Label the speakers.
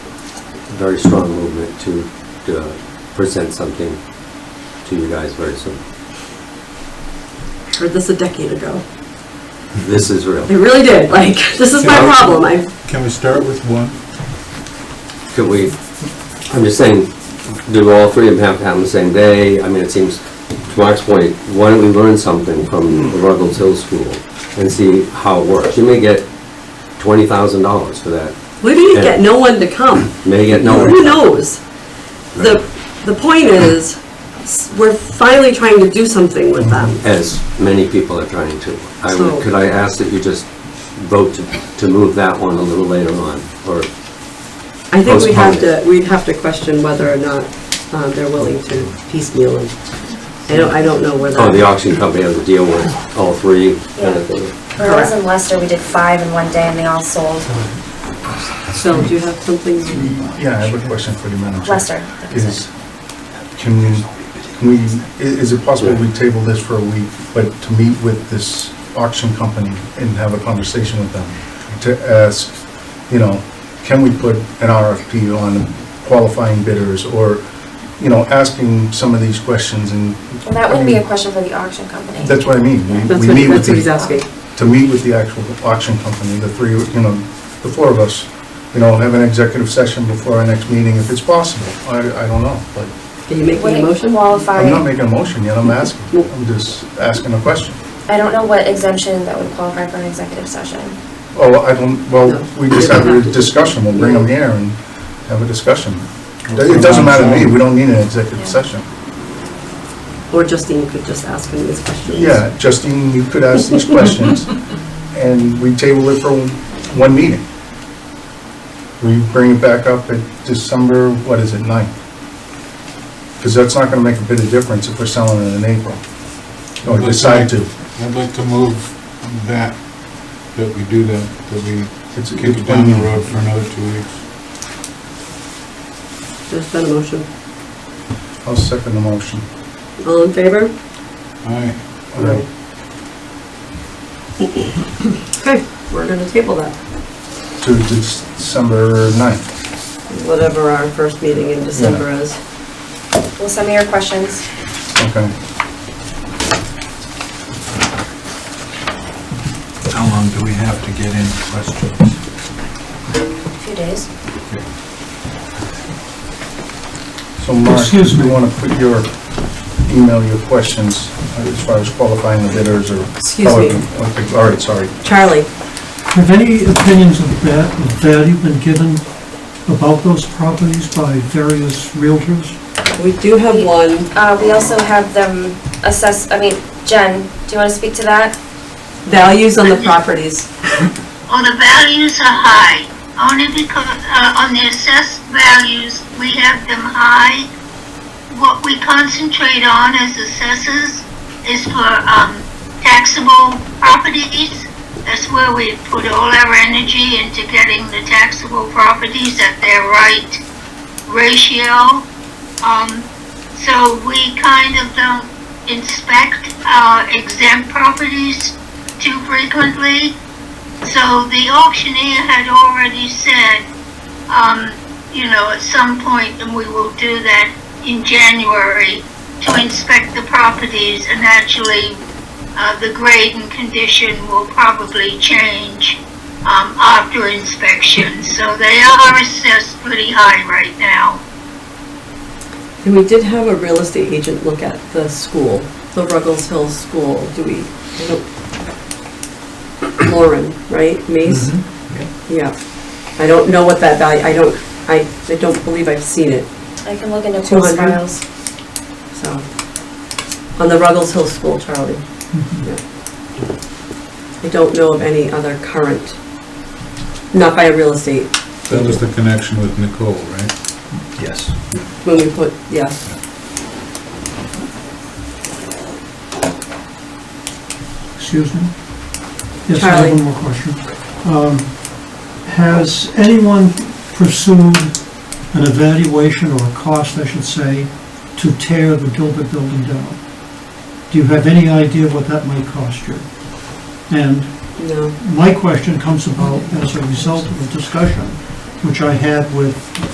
Speaker 1: very strong movement to, to present something to you guys very soon.
Speaker 2: Heard this a decade ago.
Speaker 1: This is real.
Speaker 2: I really did, like, this is my
Speaker 3: Yeah.
Speaker 2: problem, I,
Speaker 3: Can we start with one?
Speaker 1: Could we, I'm just saying, do all three of them have to happen the same day? I mean, it seems, to Mark's point, why don't we learn something from the Ruggles Hill School and see how it works? You may get twenty thousand dollars for that,
Speaker 2: where do you
Speaker 1: Yeah.
Speaker 2: get no one to come?
Speaker 1: You may get no one.
Speaker 2: Who knows? The, the point is, s- we're finally trying to do something with them.
Speaker 1: As many people are trying to. I
Speaker 2: So-
Speaker 1: would, could I ask that you just vote to, to move that one a little later on, or,
Speaker 2: I think we'd have
Speaker 1: Postpone
Speaker 2: to, we'd have to question whether or not um, they're willing to piecemeal them. I don't, I don't know where
Speaker 1: oh, the
Speaker 2: that,
Speaker 1: auction company has a deal with all three kind of thing?
Speaker 4: When I was in Leicester, we did five in one day and they all sold.
Speaker 2: Phil, do you have something?
Speaker 3: Yeah, I have a question for the manager.
Speaker 4: Leicester.
Speaker 3: Is, can we, can we, i- is it possible we table this for a week, but to meet with this auction company and have a conversation with them? To ask, you know, can we put an RFP on qualifying bidders or, you know, asking some of these questions and.
Speaker 4: Well, that wouldn't be a question for the auction company.
Speaker 3: That's what I mean. We-
Speaker 2: That's
Speaker 3: we
Speaker 2: what,
Speaker 3: meet with
Speaker 2: that's what
Speaker 3: the-
Speaker 2: he's asking.
Speaker 3: to meet with the actual auction company, the three, you know, the four of us, you know, have an executive session before our next meeting if it's possible. I, I don't know, but
Speaker 2: Are you making
Speaker 4: Would
Speaker 2: a
Speaker 4: it
Speaker 2: motion?
Speaker 4: qualify-
Speaker 3: I'm not making a motion yet, I'm asking, I'm just asking a question.
Speaker 4: I don't know what exemption that would qualify for an executive session.
Speaker 3: Oh, I don't, well, we just have
Speaker 2: No.
Speaker 3: a discussion, we'll bring them here and have a discussion. It doesn't matter to me, we don't need an executive session.
Speaker 2: Or Justine could just ask him these questions.
Speaker 3: Yeah, Justine, you could ask these questions, and we table it for one meeting. We bring it back up at December, what is it, ninth? Because that's not gonna make a bit of difference if we're selling it in April, or decide to.
Speaker 5: I'd like to move that, that we do that, that we
Speaker 3: It's-
Speaker 5: kick
Speaker 3: it's
Speaker 5: it down the
Speaker 3: one-
Speaker 5: road for another two weeks.
Speaker 2: There's been a motion.
Speaker 3: I'll second the motion.
Speaker 2: All in favor?
Speaker 5: Aye.
Speaker 3: Okay.
Speaker 2: Okay, we're gonna table that,
Speaker 3: To December ninth.
Speaker 2: whatever our first meeting in December is.
Speaker 4: Well, send me your questions.
Speaker 3: okay.
Speaker 6: How long do we have to get in questions?
Speaker 4: A few days.
Speaker 3: So Mark,
Speaker 6: Excuse
Speaker 3: you
Speaker 6: me.
Speaker 3: wanna put your, email your questions uh, as far as qualifying the bidders or?
Speaker 2: Excuse me.
Speaker 3: Okay, All right, sorry.
Speaker 2: Charlie,
Speaker 7: Have any opinions of va- of value been given about those properties by various realtors?
Speaker 2: we do have one.
Speaker 4: Uh, we also have them assess, I mean, Jen, do you want to speak to that?
Speaker 2: Values on the properties.
Speaker 8: Well, the values are high, only because, uh, on the assessed values, we have them high. What we concentrate on as assessors is for, um, taxable properties. That's where we put all our energy into getting the taxable properties at their right ratio. Um, so we kind of don't inspect our exempt properties too frequently. So the auctioneer had already said, um, you know, at some point, and we will do that in January, to inspect the properties and actually, uh, the grade and condition will probably change, um, after inspection. So they are assessed pretty high right now.
Speaker 2: And we did have a real estate agent look at the school, the Ruggles Hill School, do we? I don't- Lauren, right, Mace? Yeah, I don't know what that value, I don't, I, I don't believe I've seen it,
Speaker 4: I can look into post
Speaker 2: 200?
Speaker 4: files.
Speaker 2: so. On the Ruggles Hill School, Charlie. Yeah. I don't know of any other current, not by a real estate,
Speaker 5: That was the connection with Nicole, right?
Speaker 6: Yes.
Speaker 2: when we put, yeah.
Speaker 7: Excuse me? Yes, I have
Speaker 2: Charlie.
Speaker 7: one more question. Um, Has anyone pursued an evaluation or a cost, I should say, to tear the Gilbert building down? Do you have any idea what that might cost you? And
Speaker 2: No.
Speaker 7: my question comes about as a result of a discussion which I had with